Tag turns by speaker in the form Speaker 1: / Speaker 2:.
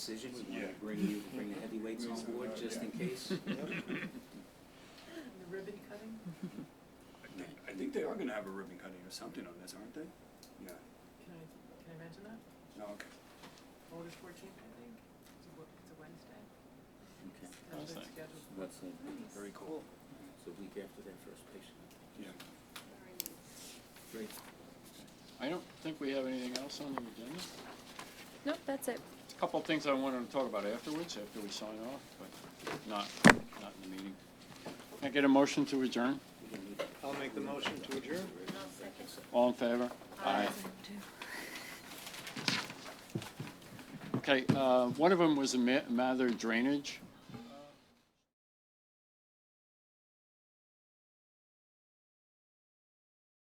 Speaker 1: decision, we wanted to
Speaker 2: Yeah.
Speaker 1: bring you, bring the heavyweights on board, just in case.
Speaker 3: The ribbon cutting?
Speaker 2: I think, I think they are gonna have a ribbon cutting or something on this, aren't they? Yeah,
Speaker 3: Can I, can I mention that?
Speaker 2: no, okay.
Speaker 3: August fourteenth, I think. It's a, wo- it's a Wednesday.
Speaker 1: Okay,
Speaker 3: That's the schedule.
Speaker 1: what's the,
Speaker 2: Very cool.
Speaker 1: it's a week after that first patient.
Speaker 2: Yeah.
Speaker 1: Great.
Speaker 4: I don't think we have anything else on the agenda.
Speaker 5: Nope, that's it.
Speaker 4: A Couple of things I wanted to talk about afterwards, after we sign off, but not, not in the meeting. Can I get a motion to adjourn?
Speaker 6: I'll make the motion to adjourn.
Speaker 4: All in favor? Aye. Okay, uh, one of them was a ma- Mather drainage.